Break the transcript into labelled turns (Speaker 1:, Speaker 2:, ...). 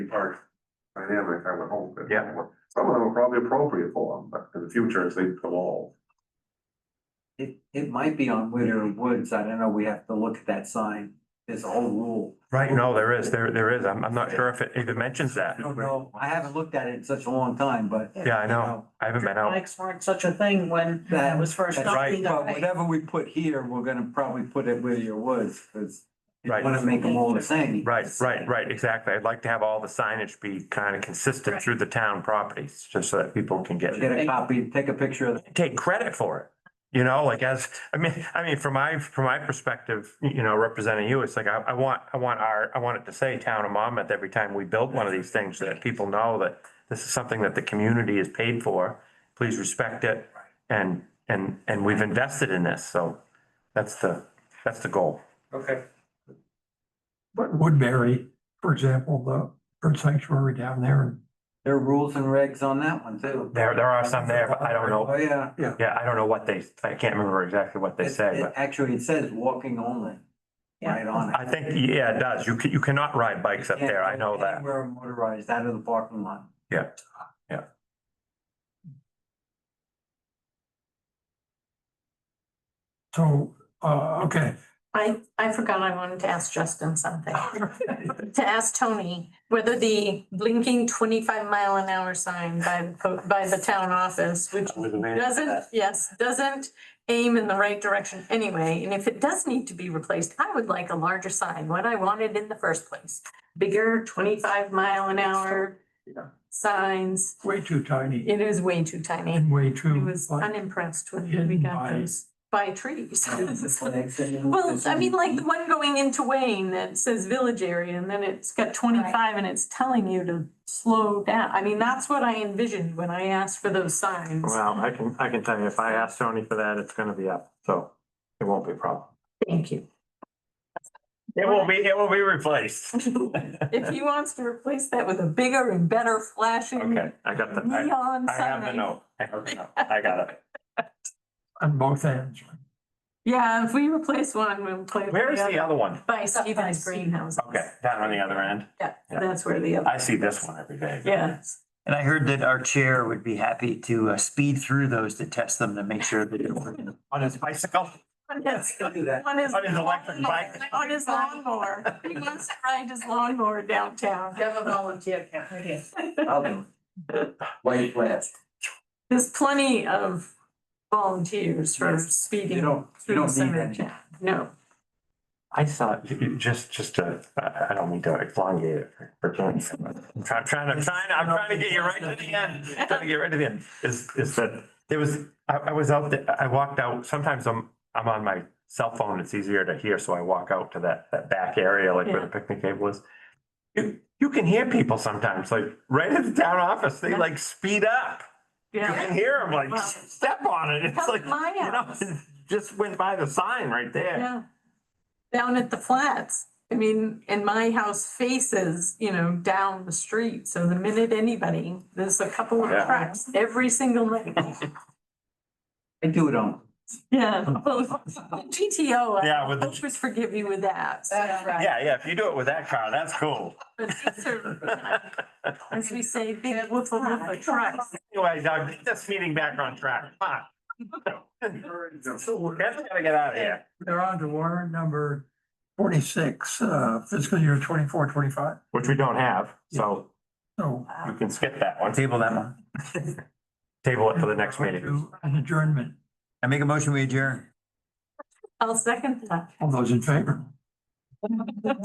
Speaker 1: part
Speaker 2: dynamic, I would hope. that-
Speaker 1: Yeah.
Speaker 2: Some of them are probably appropriate for them, but in the future, as they evolve.
Speaker 3: It, it might be on Witter Woods, I don't know, we have to look at that sign, there's a whole rule.
Speaker 1: Right, no, there is, there, there is. I'm, I'm not sure if it even mentions that.
Speaker 3: I don't know, I haven't looked at it in such a long time, but.
Speaker 1: Yeah, I know. I haven't been out.
Speaker 4: Bikes weren't such a thing when
Speaker 3: That-
Speaker 4: that was first.
Speaker 3: that's
Speaker 4: up
Speaker 1: right.
Speaker 4: either
Speaker 3: But
Speaker 4: way.
Speaker 3: whatever we put here, we're gonna probably put it Whittier Woods, because you
Speaker 1: Right.
Speaker 3: wanna make them all the same.
Speaker 1: Right, right, right, exactly. I'd like to have all the signage be kind of consistent through the town properties, just so that people can get
Speaker 3: Get a copy, take a picture of it.
Speaker 1: take credit for it. You know, like as, I mean, I mean, from my, from my perspective, you know, representing you, it's like, I, I want, I want our, I want it to say town of Monmouth every time we build one of these things, so that people know that this is something that the community is paid for. Please respect it. And, and, and we've invested in this, so that's the, that's the goal.
Speaker 5: Okay.
Speaker 6: But Woodbury, for example, the bird sanctuary down there,
Speaker 3: There are rules and regs on that one too.
Speaker 1: There, there are some there, but I don't know,
Speaker 3: Oh, yeah.
Speaker 1: yeah, I don't know what they, I can't remember exactly what they
Speaker 3: It-
Speaker 1: say,
Speaker 3: it-
Speaker 1: but
Speaker 3: Actually, it says walking only.
Speaker 4: Yeah.
Speaker 3: Right on it.
Speaker 1: I think, yeah, it does. You can, you cannot ride bikes up there. I know that.
Speaker 3: We're motorized out of the parking lot.
Speaker 6: so, uh, okay.
Speaker 4: I, I forgot I wanted to ask Justin something, to ask Tony whether the blinking twenty-five mile an hour sign by, the po- by the town office, which doesn't, yes, doesn't aim in the right direction anyway, and if it does need to be replaced, I would like a larger sign, what I wanted in the first place. Bigger twenty-five mile an hour
Speaker 6: Yeah.
Speaker 4: signs,
Speaker 6: Way too tiny
Speaker 4: it is way too tiny.
Speaker 6: and way
Speaker 4: I
Speaker 6: too.
Speaker 4: was unimpressed when we
Speaker 6: Hidden
Speaker 4: got
Speaker 6: by-
Speaker 4: those by trees. Well,
Speaker 3: Well,
Speaker 4: I mean, like the one going into Wayne that says village area and then it's got twenty-five and it's telling you to slow down. I mean, that's what I envisioned when I asked for those signs.
Speaker 1: Well, I can, I can tell you, if I ask Tony for that, it's gonna be up, so it won't be a problem.
Speaker 4: Thank you.
Speaker 1: It will be, it will be replaced.
Speaker 4: If he wants to replace that with a bigger and better flashing
Speaker 1: Okay, I got the, I,
Speaker 4: neon sign.
Speaker 1: I have the note. I have the note. I got it.
Speaker 6: On both ends.
Speaker 4: Yeah, if we replace one, we'll play. with
Speaker 1: Where is the
Speaker 4: other.
Speaker 1: other one?
Speaker 4: By Stevens Greenhouse.
Speaker 1: Okay, down on the other end.
Speaker 4: Yeah,
Speaker 1: Yeah.
Speaker 4: that's where the other,
Speaker 1: I see this one every day.
Speaker 4: yeah.
Speaker 7: And I heard that our chair would be happy to uh, speed through those to test them to make sure that it works.
Speaker 1: On his bicycle?
Speaker 4: One is-
Speaker 3: Don't do that.
Speaker 4: One is.
Speaker 1: On his electric bike.
Speaker 4: On his lawnmower. He wants to ride his lawnmower downtown.
Speaker 8: have a volunteer count, right here.
Speaker 3: I'll do it. White flash.
Speaker 4: There's plenty of volunteers for
Speaker 3: Yes.
Speaker 4: speeding.
Speaker 3: You don't, you
Speaker 4: through
Speaker 3: don't need
Speaker 4: Center
Speaker 3: any.
Speaker 4: Town. No,
Speaker 1: I saw, it- it- just, just to, I, I don't mean to elongate it for- for Tony. I'm trying, trying to, trying, to- I'm trying to get you right to the end, trying to get right to the end, is, is that there was, I, I was out there, I walked out, sometimes I'm, I'm on my cell phone, it's easier to hear, so I walk out to that, that back area, like where the picnic table is. You, you can hear people sometimes, like, right at the town office, they like speed up. You
Speaker 4: yeah.
Speaker 1: can hear them like step on it, it's
Speaker 4: Come
Speaker 1: like,
Speaker 4: to my
Speaker 1: you know,
Speaker 4: house.
Speaker 1: just went by the sign right there.
Speaker 4: Yeah. Down at the flats. I mean, and my house faces, you know, down the street. So the minute anybody, there's a couple of
Speaker 1: Yeah.
Speaker 4: cracks every single night.
Speaker 3: I do it on.
Speaker 4: Yeah. well, GTO, I
Speaker 1: Yeah, with the,
Speaker 4: always forgive you with that.
Speaker 8: That's right.
Speaker 1: Yeah, yeah, if you do it with that car, that's cool.
Speaker 4: But these are, As we say, big whoop a whoop a truck.
Speaker 1: Anyway, Doug, get this meeting back on track, come on. Kevin's gotta get out of here.
Speaker 6: They're on to warrant number forty-six, uh, fiscal year twenty-four, twenty-five.
Speaker 1: Which we don't have, so
Speaker 6: So.
Speaker 1: you can skip that one.
Speaker 7: Table that one.
Speaker 1: Table it for the next meeting.
Speaker 6: To An adjournment.
Speaker 7: I make a motion, we adjourn.
Speaker 4: I'll second that.
Speaker 6: All those in favor?